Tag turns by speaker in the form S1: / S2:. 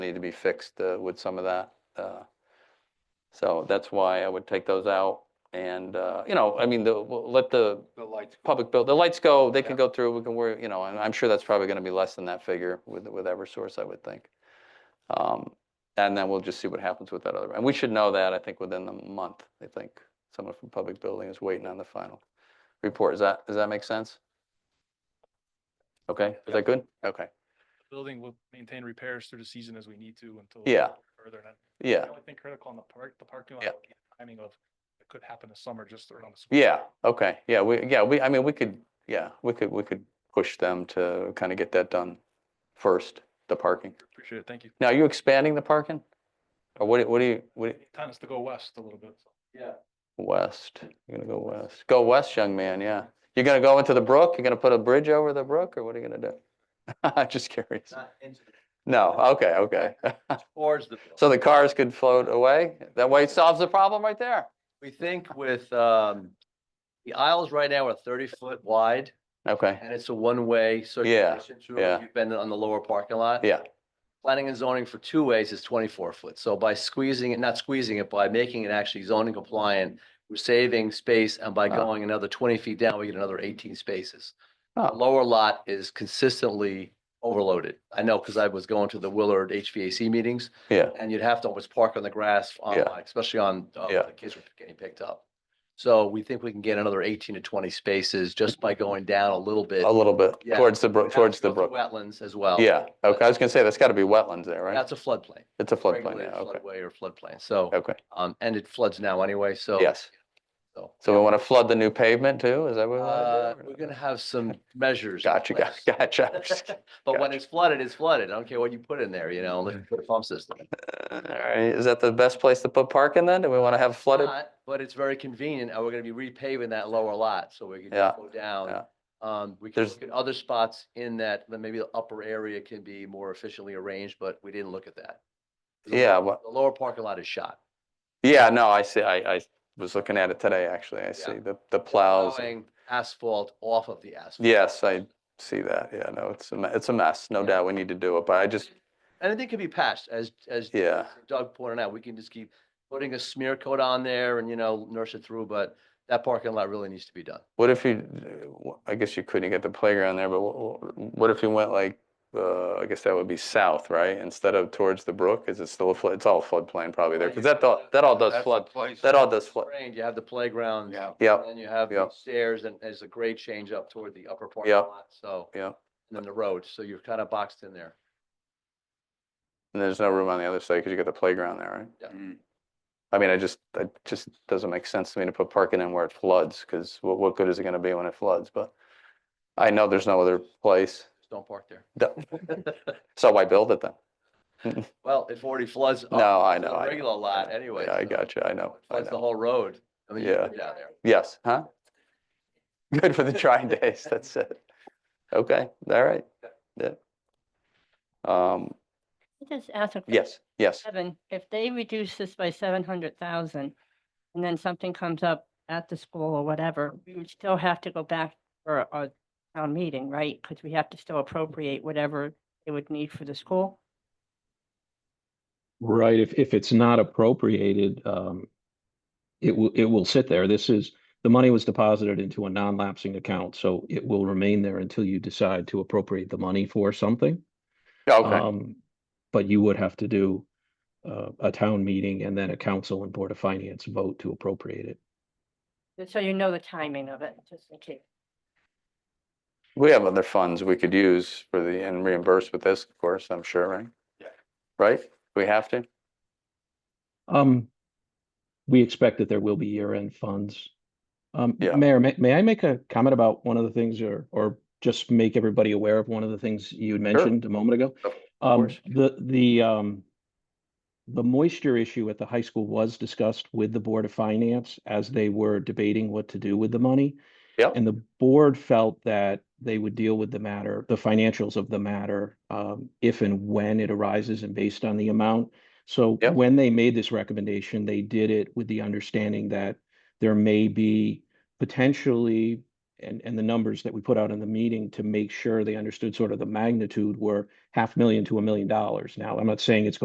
S1: need to be fixed uh, with some of that. uh, So that's why I would take those out. And, uh, you know, I mean, the, we'll let the
S2: The lights.
S1: public bill, the lights go, they can
S2: Yeah.
S1: go through, we can worry, you know, and I'm sure that's probably going to be less than that figure with, with Eversource, I would think. Um, And then we'll just see what happens with that other, and we should know that, I think, within the month, I think. Someone from Public Building is waiting on the final report. Is that, does that make sense? Okay, is
S2: Yeah.
S1: that good? Okay,
S3: building will maintain repairs through the season as we need to until.
S1: Yeah.
S3: Further. and I-
S1: yeah.
S3: The only thing critical on the park, the parking lot,
S1: Yeah.
S3: would be the timing of, it could happen this summer, just around the. school
S1: Yeah,
S3: year.
S1: okay, yeah, we, yeah, we, I mean, we could, yeah, we could, we could push them to kind of get that done first, the parking.
S3: Appreciate it. Thank you.
S1: Now, are you expanding the parking? Or what, do- what do you, what, do you-
S3: Time is to go west a little bit. so.
S1: west, you're gonna go west, go west, young man, yeah. You're gonna go into the brook, you're gonna put a bridge over the brook, or what are you gonna do? I'm just curious.
S2: Not into the-
S1: No, okay, okay.
S2: Towards the.
S1: So the cars could float away, that way it solves the problem right there.
S2: We think with, um, the aisles right now are thirty foot wide
S1: Okay,
S2: and it's a one-way circulation through. if
S1: yeah.
S2: You've been on the lower parking lot.
S1: yeah,
S2: Planning and zoning for two ways is twenty-four foot. So by squeezing it, not squeezing it, by making it actually zoning compliant, we're saving space and by
S1: Ah.
S2: going another twenty feet down, we get another eighteen spaces. The
S1: Oh.
S2: Lower lot is consistently overloaded. I know because I was going to the Willard HVAC meetings.
S1: yeah,
S2: and you'd have to always park on the grass, on,
S1: Yeah.
S2: like, especially on, uh,
S1: Yeah.
S2: the kids were getting picked up. So we think we can get another eighteen to twenty spaces just by going down a little bit.
S1: a little bit,
S2: Yeah.
S1: towards the
S2: We'd
S1: brook,
S2: have
S1: towards
S2: to
S1: the
S2: go through
S1: brook.
S2: Wetlands as well.
S1: Yeah, okay, I was gonna say, that's gotta be wetlands there, right?
S2: That's a floodplain.
S1: It's a floodplain,
S2: regulated
S1: yeah, okay,
S2: Floodway or floodplain, so,
S1: okay,
S2: um, and it floods now anyway, so.
S1: yes.
S2: So,
S1: So we wanna flood the new pavement too, is that what? we
S2: uh,
S1: wanna do?
S2: we're gonna have some measures. in
S1: Gotcha, gotcha,
S2: place.
S1: gotcha. I'm just kidding.
S2: But when
S1: gotcha.
S2: it's flooded, it's flooded. I don't care what you put in there, you know, unless you put a pump system.
S1: All right, is that the best place to put parking then? Do we wanna have flooded?
S2: not, But it's very convenient, and we're gonna be repaving that lower lot, so we can
S1: Yeah,
S2: just go down.
S1: yeah.
S2: Um, we can
S1: There's-
S2: look at other spots in that, then maybe the upper area can be more efficiently arranged, but we didn't look at that. The
S1: Yeah,
S2: lower-
S1: what-
S2: The lower parking lot is shot.
S1: Yeah, no, I see, I, I was looking at it today, actually, I see the, the plows. and-
S2: Plowing Asphalt off of the asphalt.
S1: Yes, I see that, yeah, no, it's a, me- it's a mess, no
S2: Yeah.
S1: doubt, we need to do it, but I just,
S2: And I think it can be patched, as, as
S1: yeah,
S2: Doug pointed out, we can just keep putting a smear coat on there and, you know, nurse it through, but that parking lot really needs to be done.
S1: what if you, uh, wh- I guess you couldn't get the playground there, but wh- wh- what if you went like, uh, I guess that would be south, right? Instead of towards the brook, is it still a flood, it's all floodplain probably there, because that, all- that all does flood, that all does flood,
S2: Drained, you have the playground.
S3: Yeah.
S1: yeah,
S2: And then you have the
S1: Yep.
S2: stairs and there's a grade change up toward the upper parking
S1: Yep.
S2: lot, so,
S1: yeah.
S2: and then the road, so you're kind of boxed in there.
S1: And there's no room on the other side because you got the playground there, right?
S2: Yeah.
S3: Mm.
S1: I mean, I just, it just doesn't make sense to me to put parking in where it floods because what, what good is it going to be when it floods? But I know there's no other place.
S2: Just don't park there.
S1: Duh. So why build it then?
S2: Well, it already floods. up
S1: No, I
S2: to the
S1: know, I know,
S2: Regular lot anyway.
S1: Yeah, I
S2: so
S1: got you. I know.
S2: it
S1: I
S2: Floods the
S1: know.
S2: whole road. I mean, you
S1: Yeah.
S2: get down there.
S1: Yes, huh? Good for the trying days. That's it. Okay, all right. Yeah. Um,
S4: Can I Just ask a question,
S1: yes, yes.
S4: Kevin, if they reduce this by seven hundred thousand and then something comes up at the school or whatever, we would still have to go back for a town meeting, right? Because we have to still appropriate whatever they would need for the school.
S5: Right, if, if it's not appropriated, um, it will, it will sit there. This is, the money was deposited into a non-lapsing account, so it will remain there until you decide to appropriate the money for something.
S1: Yeah, Okay,
S5: Um, but you would have to do, uh, a town meeting and then a council and board of finance vote to appropriate it.
S4: Just So you know the timing of it, just in case.
S1: we have other funds we could use for the, and reimburse with this, of course, I'm sure, right?
S3: Yeah.
S1: Right? We have to?
S5: Um, we expect that there will be year-end funds. Um,
S1: Yeah.
S5: Mayor, may, may I make a comment about one of the things or, or just make everybody aware of one of the things you had mentioned a moment ago?
S1: Of
S5: Um,
S1: course.
S5: the, the, um, the moisture issue at the high school was discussed with the Board of Finance as they were debating what to do with the money.
S1: Yep.
S5: And the board felt that they would deal with the matter, the financials of the matter, um, if and when it arises and based on the amount. So
S1: Yep.
S5: when they made this recommendation, they did it with the understanding that there may be potentially and, and the numbers that we put out in the meeting to make sure they understood sort of the magnitude were half million to a million dollars. Now, I'm not saying it's